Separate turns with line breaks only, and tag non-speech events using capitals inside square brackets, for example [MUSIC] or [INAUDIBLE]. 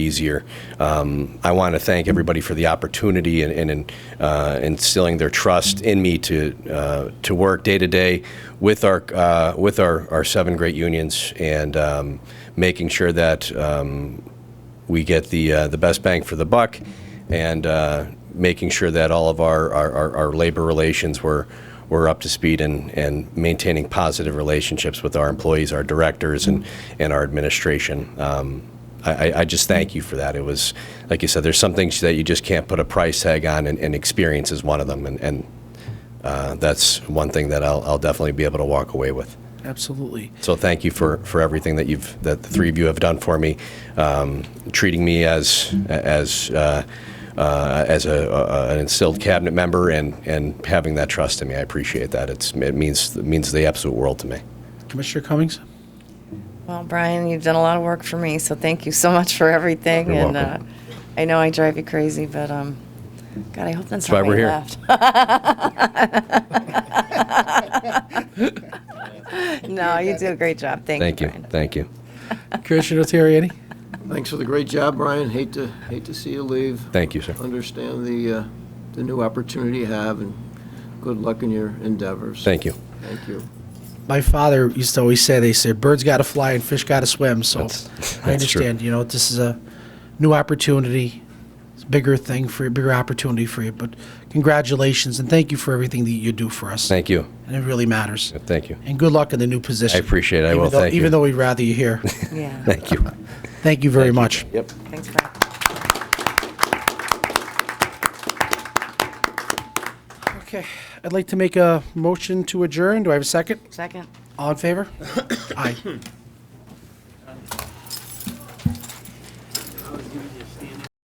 easier. Um, I want to thank everybody for the opportunity and, and, and uh, instilling their trust in me to uh, to work day to day with our uh, with our, our seven great unions and um, making sure that um, we get the uh, the best bang for the buck and uh, making sure that all of our, our, our, our labor relations were were up to speed and, and maintaining positive relationships with our employees, our directors, and, and our administration. Um, I, I- I just thank you for that. It was, like you said, there's some things that you just can't put a price tag on, and, and experience is one of them. And, and uh, that's one thing that I'll, I'll definitely be able to walk away with.
Absolutely.
So thank you for, for everything that you've that the three of you have done for me, um, treating me as as uh, uh, as a, a, an instilled cabinet member and and having that trust in me. I appreciate that. It's it means it means the absolute world to me.
Commissioner Cummings?
Well, Brian, you've done a lot of work for me, so thank you so much for everything.
You're
and
welcome.
Uh, I know I drive you crazy, but um, God, I hope that's,
why
not why
we're
you
here. [LAUGHS]
left. [LAUGHS] no, you do a great job. Thank,
Thank
you.
you,
Brian.
thank you,
Commissioner Terriani?
Thanks for the great job, Brian. Hate to, hate to see you leave.
thank you, sir.
Understand the, uh, the new opportunity you have, and good luck in your endeavors.
Thank you.
Thank you.
My father used to always say, they said, birds got to fly and fish got to swim. So
That's-
I
that's true.
understand, you know, this is a new opportunity. It's a bigger thing for you, bigger opportunity for you. But congratulations and thank you for everything that you do for us.
Thank you,
and it really matters.
thank you,
And good luck in the new position.
appreciate it. I
Even
will.
though-
Thank you.
Even though we'd rather
[LAUGHS]
you here.
Yeah.
thank you.
Thank you very much.
Yep.
Thanks, Brian.
Okay. I'd like to make a motion to adjourn. Do I have a second?
Second.
All in favor? Aye.